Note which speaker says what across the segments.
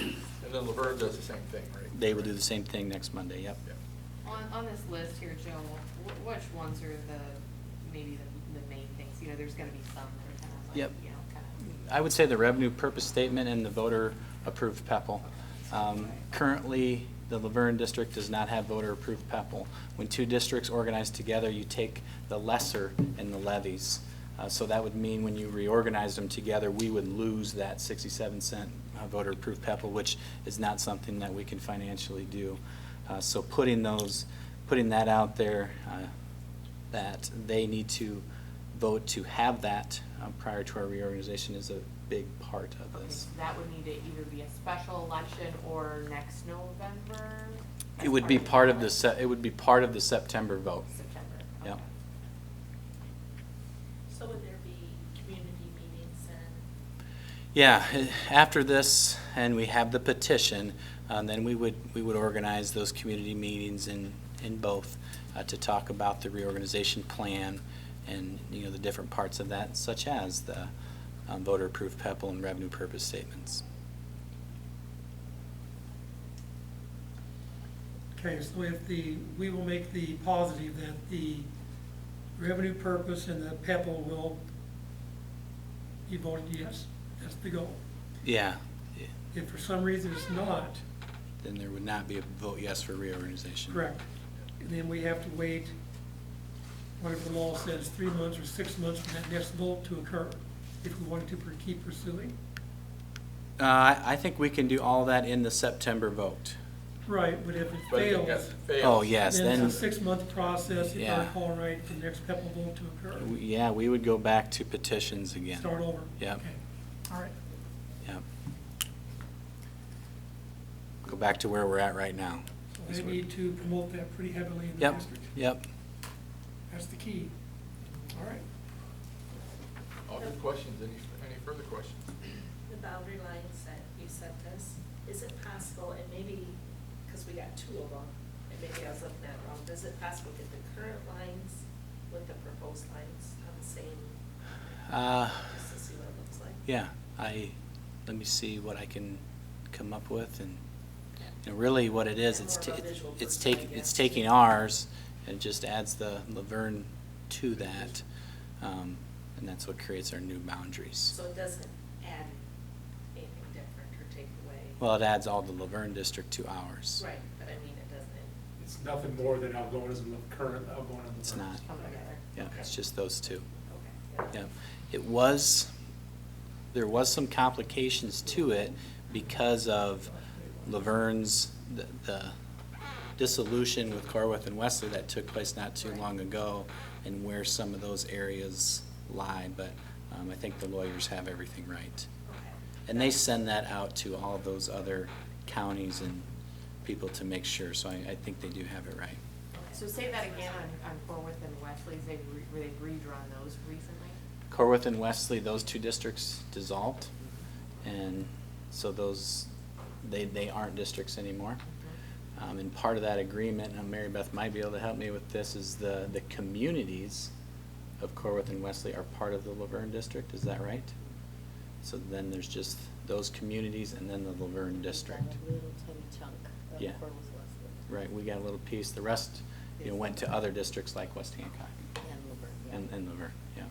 Speaker 1: And then Laverne does the same thing, right?
Speaker 2: They will do the same thing next Monday, yep.
Speaker 1: Yeah.
Speaker 3: On, on this list here, Joe, wh- which ones are the, maybe the, the main things, you know, there's gonna be some that are kind of like,
Speaker 2: Yep.
Speaker 3: you know, kind of.
Speaker 2: I would say the revenue purpose statement and the voter-approved E PEPAL. Um, Currently, the Laverne district does not have voter-approved PEPAL. When two districts organize together, you take the lesser in the levies. Uh, So that would mean when you reorganize them together, we would lose that 67 cent uh, voter-approved PEPAL, which is not something that we can financially do. Uh, So putting those, putting that out there, uh, that they need to vote to have that um, prior to our reorganization is a big part of
Speaker 3: Okay,
Speaker 2: this.
Speaker 3: so that would need to either be a special election or next November?
Speaker 2: It would be part of the,
Speaker 3: September.
Speaker 2: se- it would be part of the September vote.
Speaker 3: September,
Speaker 2: Yep.
Speaker 3: okay.
Speaker 4: So would there be community meetings and?
Speaker 2: Yeah, eh, after this, and we have the petition, um, then we would, we would organize those community meetings in, in both uh, to talk about the reorganization plan and, you know, the different parts of that, such as the um, voter-approved PEPAL and revenue purpose statements.
Speaker 5: Okay, so if the, we will make the positive that the revenue purpose and the PEPAL will be voted yes, that's the goal.
Speaker 2: Yeah, eh,
Speaker 5: If for some reason it's not,
Speaker 2: then there would not be a vote yes for reorganization.
Speaker 5: correct, then we have to wait, whatever the law says, three months or six months for that next vote to occur, if we wanted to per- keep pursuing.
Speaker 2: Uh, I I think we can do all that in the September vote.
Speaker 5: Right, but if it
Speaker 1: But if it
Speaker 5: fails,
Speaker 1: gets- fails.
Speaker 2: Oh, yes,
Speaker 5: then
Speaker 2: then,
Speaker 5: it's a six-month process, if I
Speaker 2: Yeah.
Speaker 5: recall right, for the next PEPAL vote to occur.
Speaker 2: w- yeah, we would go back to petitions again.
Speaker 5: Start over.
Speaker 2: Yep.
Speaker 5: Okay. All right.
Speaker 2: Yep. Go back to where we're at right now.
Speaker 5: So
Speaker 2: That's
Speaker 5: They
Speaker 2: what-
Speaker 5: need to promote that pretty heavily in the
Speaker 2: Yep,
Speaker 5: district.
Speaker 2: yep.
Speaker 5: That's the key. All right.
Speaker 1: All good questions, any, any further questions?
Speaker 4: The boundary lines that you sent us, is it possible, and maybe, because we got two of them, and maybe I was looking at it wrong, is it possible to get the current lines with the proposed lines on the same,
Speaker 2: Uh,
Speaker 4: just to see what it looks like?
Speaker 2: Yeah, I, let me see what I can come up with and, you know, really what it is,
Speaker 4: Yeah,
Speaker 2: it's,
Speaker 4: more
Speaker 2: ta-
Speaker 4: of a visual
Speaker 2: it's
Speaker 4: person, I
Speaker 2: taking, it's
Speaker 4: guess.
Speaker 2: taking ours and just adds the Laverne to that. um, And that's what creates our new boundaries.
Speaker 4: So it doesn't add anything different or take away?
Speaker 2: Well, it adds all the Laverne district to ours.
Speaker 4: Right, but I mean, it doesn't
Speaker 6: It's nothing more than Algona's current Algona.
Speaker 2: It's not.
Speaker 4: come together?
Speaker 2: Yeah, it's just those two.
Speaker 4: Okay.
Speaker 2: Yeah. It was, there was some complications to it because of Laverne's, the- the dissolution with Carworth and Wesley that took place not too long ago and where some of those areas lie, but um, I think the lawyers have everything right.
Speaker 4: Okay.
Speaker 2: And they send that out to all those other counties and people to make sure, so I, I think they do have it right.
Speaker 4: Okay.
Speaker 3: So say that again on, on Forworth and Wesley's, they've, re- they've redrawn those recently?
Speaker 2: Corwith and Wesley, those two districts dissolved, and so those, they, they aren't districts anymore. Um, and part of that agreement, and Mary Beth might be able to help me with this, is the, the communities of Corwith and Wesley are part of the Laverne district, is that right? So then there's just those communities and then the Laverne district.
Speaker 7: Little tiny chunk of
Speaker 2: Yeah.
Speaker 7: Corvallis Westwood
Speaker 2: Right, we got a little piece, the rest, you know, went to other districts like West Hancock
Speaker 7: and Luverne, yeah.
Speaker 2: and, and Laverne, yeah.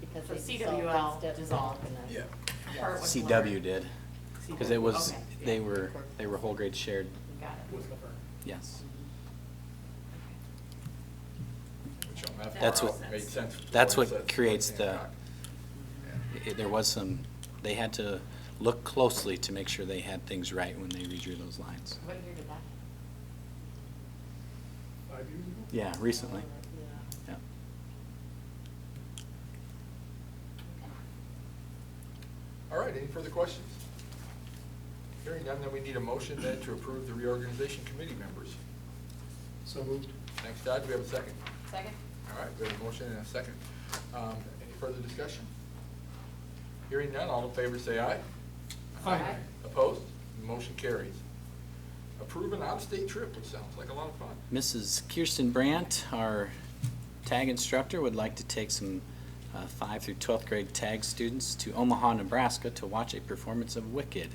Speaker 7: Because
Speaker 3: So
Speaker 7: they dissolved
Speaker 3: CWL
Speaker 7: instead-
Speaker 3: dissolved. and
Speaker 1: Yeah.
Speaker 3: then-
Speaker 7: Yeah.
Speaker 3: Part was
Speaker 2: CW
Speaker 3: Laverne.
Speaker 2: did, because it was,
Speaker 3: Okay, yeah.
Speaker 2: they were, they were whole grade shared,
Speaker 3: Got it.
Speaker 6: With Laverne.
Speaker 2: yes.
Speaker 1: Which on that
Speaker 2: That's
Speaker 1: far
Speaker 2: what-
Speaker 1: out made sense to
Speaker 2: that's
Speaker 1: it
Speaker 2: what
Speaker 1: says,
Speaker 2: creates
Speaker 1: West
Speaker 2: the-
Speaker 1: Hancock.
Speaker 7: Mm-hmm.
Speaker 2: It- There was some, they had to look closely to make sure they had things right when they redrew those lines.
Speaker 3: What year did that? happen?
Speaker 6: Five years ago?
Speaker 2: Yeah, recently,
Speaker 7: Yeah.
Speaker 2: yeah.
Speaker 1: All right, any further questions? Hearing none, then we need a motion then to approve the reorganization committee members.
Speaker 6: So moved.
Speaker 1: Thanks, Todd, do we have a second?
Speaker 3: Second?
Speaker 1: All right, we have a motion and a second. Um, Any further discussion? Hearing none, all in favor say aye.
Speaker 5: Aye.
Speaker 1: Opposed? Motion carries. Approve an out-of-state trip, which sounds like a lot of fun.
Speaker 2: Mrs. Kirsten Brandt, our tag instructor, would like to take some uh, five through 12th grade tag students to Omaha, Nebraska to watch a performance of Wicked.